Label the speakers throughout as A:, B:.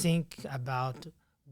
A: think about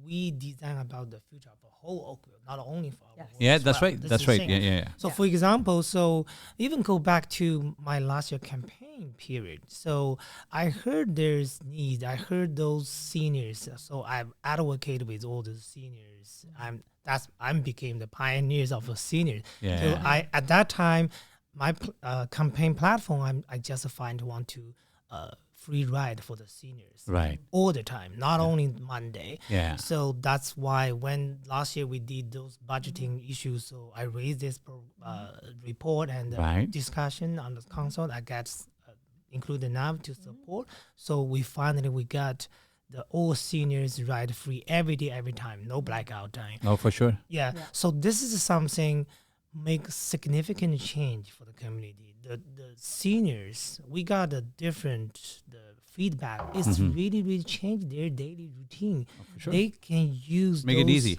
A: we design about the future of the whole Oakville, not only for our
B: Yes.
A: world
C: Yeah,
A: as
C: that's
A: well.
C: right.
A: This
C: That's
A: is the
C: right.
A: thing.
C: Yeah, yeah, yeah.
A: So
B: Yeah.
A: for example, so even go back to my last year campaign period. So I heard there's need. I heard those seniors. So I've advocated with all the seniors. I'm that's I'm became the pioneers of the seniors. So
C: Yeah.
A: I at that time, my pl- uh, campaign platform, I'm, I just find want to uh, free ride for the seniors
C: Right.
A: all the time, not only Monday.
C: Yeah.
A: So that's why when last year we did those budgeting issues, so I raised this pro, uh, report and uh,
C: Right.
A: discussion on the council. I got s- uh, included enough to support. So we finally we got the all seniors ride free every day, every time, no blackout time.
C: Oh, for sure.
A: Yeah.
B: Yeah.
A: So this is something make significant change for the community. The the seniors, we got a different the feedback. It's really really changed their daily routine.
C: Mm-hmm. Oh, sure.
A: They can use
C: Make it
A: those
C: easy.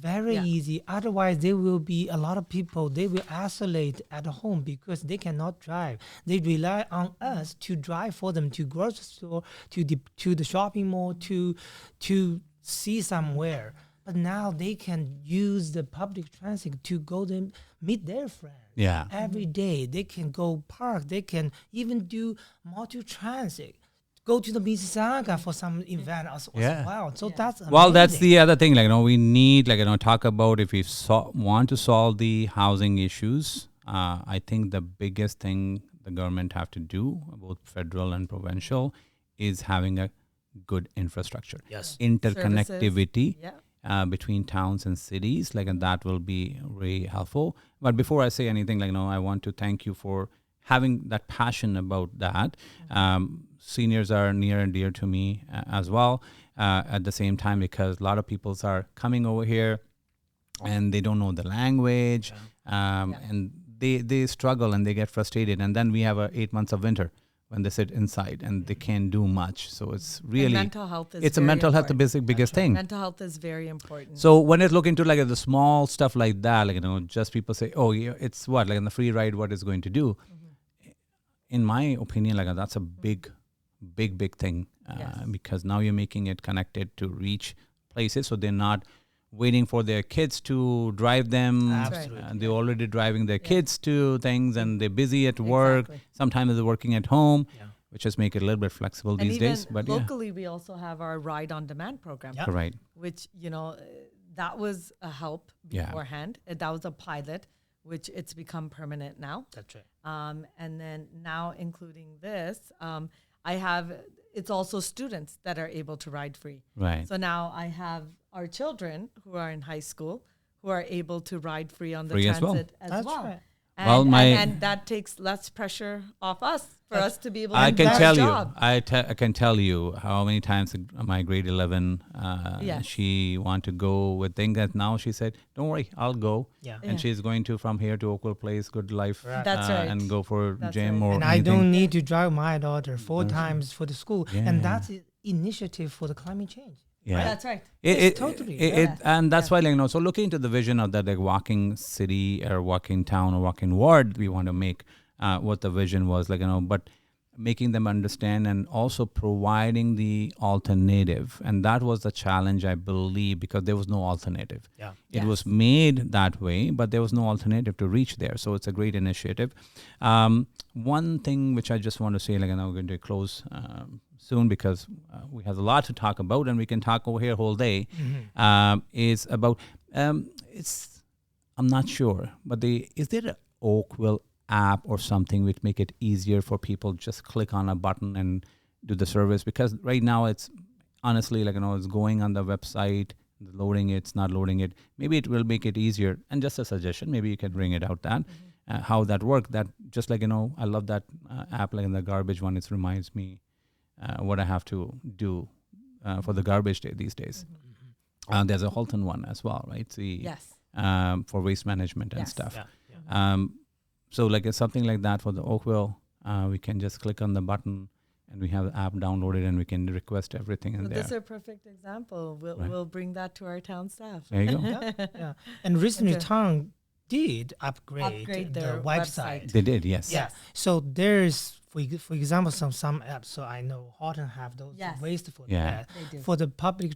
A: Very
B: Yeah.
A: easy. Otherwise, there will be a lot of people. They will isolate at home because they cannot drive. They rely on
C: Mm-hmm.
A: us to drive for them to grocery store, to the to the shopping mall, to to see somewhere. But now they can use the public transit to go to meet their friends
C: Yeah. Mm-hmm.
A: every day. They can go park. They can even do multi transit. Go to the Mississauga for some event as, as
C: Yeah.
A: well. So
B: Yeah.
A: that's
C: Well, that's
A: amazing.
C: the other thing. Like, you know, we need, like, you know, talk about if we so- want to solve the housing issues. Uh, I think the biggest thing the government have to do, both federal and provincial, is having a good infrastructure,
A: yes.
C: interconnectivity
B: Yeah.
C: uh, between towns and cities. Like, and that will be really helpful. But before I say anything, like, no, I want to thank you for having that passion about that.
B: Mm-hmm.
C: Um, seniors are near and dear to me uh, as well. Uh, at the same time, because a lot of peoples are coming over here, and they don't know the language, um,
B: Yeah.
C: and they they struggle and they get frustrated. And then we have uh, eight months of winter when they sit inside and they can't do much. So it's really
B: Mm-hmm. mental health is
C: it's a
B: very
C: mental health the
B: important.
C: basic biggest thing.
B: Mental health is very important.
C: So when it's looking to like the small stuff like that, like you know, just people say, "Oh, yeah, it's what like in the free ride, what it's going to do."
B: Mm-hmm.
C: In my opinion, like that's a big, big, big thing uh,
B: Yes.
C: because now you're making it connected to reach places, so they're not waiting for their kids to drive them.
A: That's
B: right.
C: Uh, they're already driving their kids to things, and they're busy at work.
B: Exactly.
C: Sometimes they're working at home,
A: Yeah.
C: which just make it a little bit flexible
B: and
C: these
B: even
C: days. But yeah,
B: locally, we also have our ride on demand program,
A: Yeah.
C: right,
B: which you know uh, that was a help
C: Yeah.
B: beforehand. Uh, That was a pilot, which it's become permanent now.
A: That's right.
B: Um, and then now, including this, um, I have it's also students that are able to ride free.
C: right.
B: So now I have our children who are in high school who are able to ride free on the
C: Free as well.
B: transit as well.
A: That's right.
B: And,
C: Well, my-
B: and, and that takes less pressure off us for us to be able to
C: I
B: do
C: can
B: our
C: tell
B: job.
C: you. I, te- I can tell you how many times in my grade eleven, uh,
B: Yes.
C: she wanted to go with things that now she said, "Don't worry, I'll go."
A: Yeah.
C: And she's going to from here to Oakville Place, Good Life,
A: Right.
B: That's
C: uh,
B: right.
C: and go for
B: That's
C: gym
B: right.
C: or
A: and I
C: anything.
A: don't need to drive my daughter four times for the school,
C: Yeah.
A: and that's i- initiative for the climate change.
C: Yeah.
B: That's right.
C: It,
A: Yes,
C: it,
A: totally.
C: It,
B: Yeah.
C: it, and that's why, like, you know, so looking into the vision of that, like, walking city or walking town or walking ward, we want to make uh, what the vision was, like, you know, but making them understand and also providing the alternative. And that was the challenge, I believe, because there was no alternative.
A: Yeah.
C: It was made that way, but there was no alternative to reach there. So it's a great initiative. Um, one thing which I just want to say, like, and I'm going to close um, soon because uh, we have a lot to talk about, and we can talk over here whole day. Um, is about um, it's. I'm not sure, but the is there a Oakville app or something which make it easier for people just click on a button and do the service? Because right now it's honestly like you know it's going on the website loading it, it's not loading it maybe it will make it easier and just a suggestion maybe you can bring it out that uh, how that worked that just like you know i love that uh, app like in the garbage one it reminds me uh, what i have to do uh, for the garbage day these days uh, there's a halton one as well right the
B: Yes.
C: um, for waste management and
B: Yes.
C: stuff
A: Yeah. yeah.
C: um, so like it's something like that for the Oakville, uh, we can just click on the button and we have the app downloaded and we can request everything in
B: So
C: there.
B: this is a perfect example. We'll,
C: Right.
B: we'll bring that to our town staff.
C: there you go.
A: yeah, yeah. And recently,
B: Okay.
A: town did upgrade,
B: Upgrade
A: their,
B: their
A: website.
B: website.
C: They did, yes.
A: Yeah. So there's for ex- for example some some apps. So I know Horton have those
B: Yes.
A: ways for
C: Yeah.
A: that.
B: They do.
A: For the public